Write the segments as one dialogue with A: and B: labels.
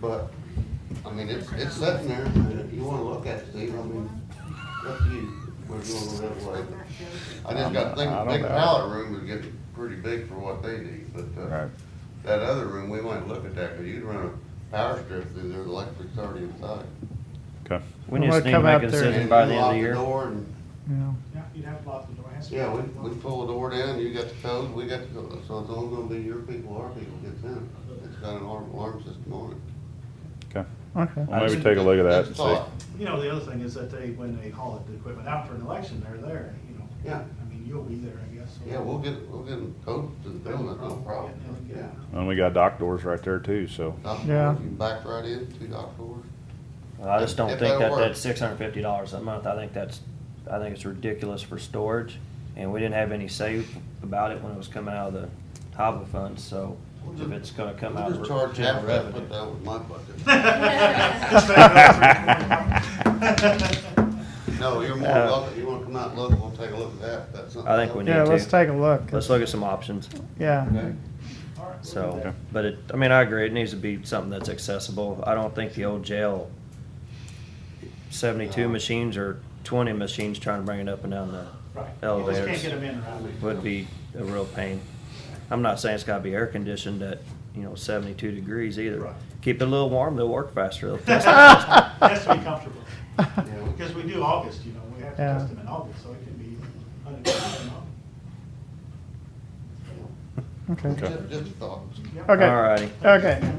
A: But, I mean, it's, it's sitting there, and if you wanna look at it, Steve, I mean, up to you, whether you wanna go that way. but I just got, think,
B: I don't
A: think
B: know.
A: pallet room is getting pretty big for what they need, but, uh,
B: Right.
A: that other room, we might look at that, cause you'd run a power strip through there, the electric's already inside.
B: Okay.
C: We
D: I'm gonna
C: just need to
D: come
C: make
D: out
C: a
D: there and-
C: decision by the
A: You
C: end of
A: lock
C: the year.
A: Door and,
D: Yeah.
E: Yeah, you'd have to lock the door. It has to be
A: yeah, we,
E: locked.
A: we pull the door down, you got the code, we got the code, so it's all gonna be your people, our people gets in. It's got an alarm, alarm system on it.
B: Okay.
D: Okay.
B: Well, maybe take a look at that
A: That's
B: and
A: thought.
B: see.
E: You know, the other thing is that they, when they haul the equipment out for an election, they're there, you know.
A: Yeah.
E: I mean, you'll be there, I guess. so-
A: Yeah, we'll get, we'll get them code to the building, no problem,
E: Yeah,
A: yeah.
E: yeah.
B: And we got dock doors right there too, so.
A: Dock
D: Yeah.
A: doors, you back right in, two dock doors.
C: I just don't
A: If
C: think that
A: that'll
C: that's
A: work.
C: six hundred fifty dollars a month. I think that's, I think it's ridiculous for storage. And we didn't have any say about it when it was coming out of the HAVA funds, so if it's gonna come out of
A: We'll just charge
C: general
A: half that, put
C: revenue.
A: that with my bucket. No, you're
D: Uh,
A: more welcome, you wanna come out and look, we'll take a look at that, that's something.
C: I think we
A: else.
C: need
D: Yeah, let's
C: to.
D: take a look.
C: Let's look at some options,
D: Yeah.
A: Okay.
E: All right, we'll do
C: so,
E: that.
C: but it, I mean, I agree, it needs to be something that's accessible. I don't think the old jail seventy-two
A: No.
C: machines or twenty machines trying to bring it up and down the
E: Right. You just can't
C: elevators.
E: get them in or out.
C: would be a real pain. I'm not saying it's gotta be air conditioned at, you know, seventy-two degrees either.
E: Right.
C: Keep it a little warm, they'll work faster. They'll test it.
E: Has to be comfortable,
A: Yeah, we-
E: because we do August, you know, we have to
D: Yeah.
E: test them in August, so it can be hundred degrees in August.
D: Okay.
A: Just just a thought.
E: Yep.
D: Okay.
C: Alrighty,
D: Okay.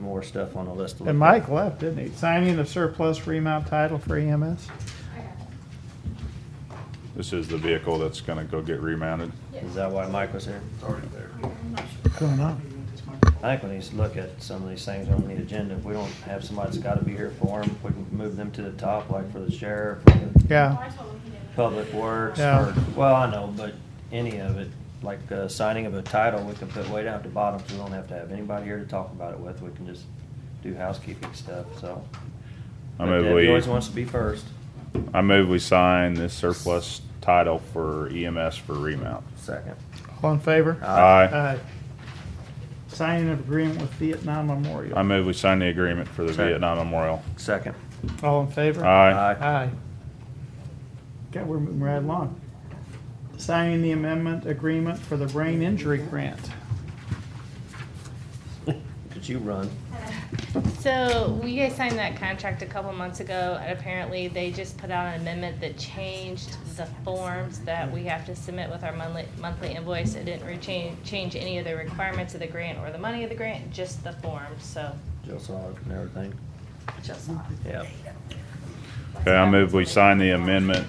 C: more stuff on the list. to look
D: And
C: at.
D: Mike left, didn't he? Signing of surplus remount title for E EMS.
B: This is the vehicle that's gonna go get remounted.
C: Is that why Mike was here?
A: It's already there.
D: What's going on?
E: Maybe with this microphone.
C: I think we need to look at some of these things on the agenda. If we don't have somebody that's gotta be here for them, we can move them to the top, like for the sheriff, for the
D: Yeah.
C: public works,
D: Yeah.
C: or, well, I know, but any of it. Like, uh, signing of a title, we can put way down at the bottom, so we don't have to have anybody here to talk about it with. We can just do housekeeping stuff, so.
B: I
C: But
B: move
C: Debbie Always
B: we,
C: wants to be first.
B: I move we sign this surplus title for EMS for remount.
C: Second. Uh,
D: All in favor?
B: Aye.
D: Signing of agreement with Vietnam
B: I
D: Memorial.
B: move we sign the agreement for the
C: Second.
B: Vietnam Memorial.
C: Second.
D: All in favor?
B: Aye.
D: Aye. Okay, we're moving right along. Signing the amendment agreement for the brain injury grant.
C: Could you run?
F: So we guys signed that contract a couple months ago, and apparently they just put out an amendment that changed the forms that we have to submit with our monthly, monthly invoice. It didn't re- change, change any of the requirements of the grant or the money of the grant, just the forms, so.
C: Jill saw it and everything.
F: just-
C: Yeah.
B: Okay, I move we sign the amendment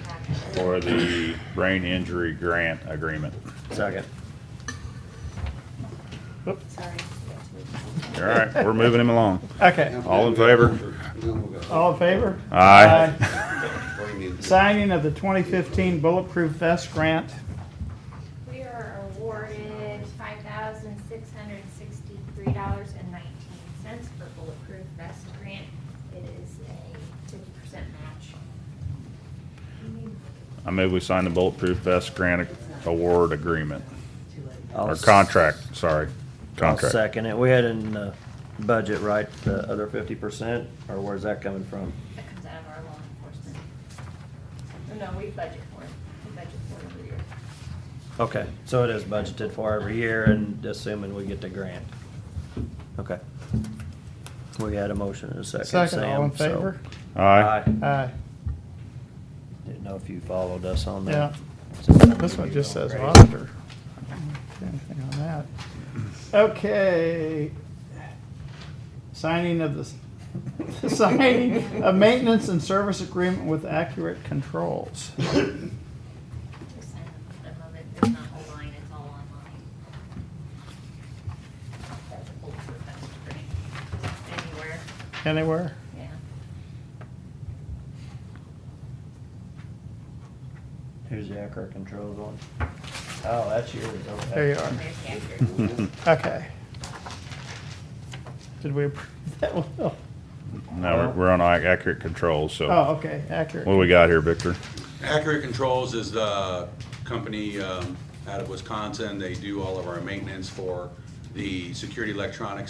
B: for the brain injury grant agreement.
C: Second.
F: Sorry.
B: All right, we're moving him along.
D: Okay,
B: All in favor?
D: all in favor?
B: Aye.
D: Signing of the 2015 Bulletproof Vest Grant.
G: We are awarded five thousand six hundred sixty-three dollars and nineteen cents for bulletproof vest grant. It is a fifty percent match.
B: I move we sign the bulletproof vest grant award agreement,
C: I'll
B: or
C: s-
B: contract, sorry,
C: I'll
B: contract.
C: Second it. We had in the budget, right, the other fifty percent, or where's that coming from?
G: That comes out of our law enforcement. Oh, No, we budget for it. We budget for it every year.
C: Okay, so it is budgeted for every year and assuming we get the grant. Okay. We had a motion and a second, Sam.
D: Second, all in
C: so-
D: favor?
B: Aye.
D: Aye.
C: Didn't know if you followed us on
D: Yeah.
C: that.
D: This one just says auditor. Anything on that? Okay. Signing of this, signing of maintenance and service agreement with Accurate Controls.
G: We sign the moment, there's not a line, it's all online. That's a bulletproof vest grant. Anywhere,
D: Anywhere?
G: yeah.
C: Who's the Accurate Controls one? Oh, that's yours, okay.
D: There you are.
G: There's the accurate.
D: Okay. Did we approve that one?
B: Now, we're, we're on ac- accurate controls, so.
D: Oh, okay,
B: What do
D: accurate.
B: we got here, Victor?
H: Accurate Controls is the company um, out of Wisconsin. They do all of our maintenance for the security electronics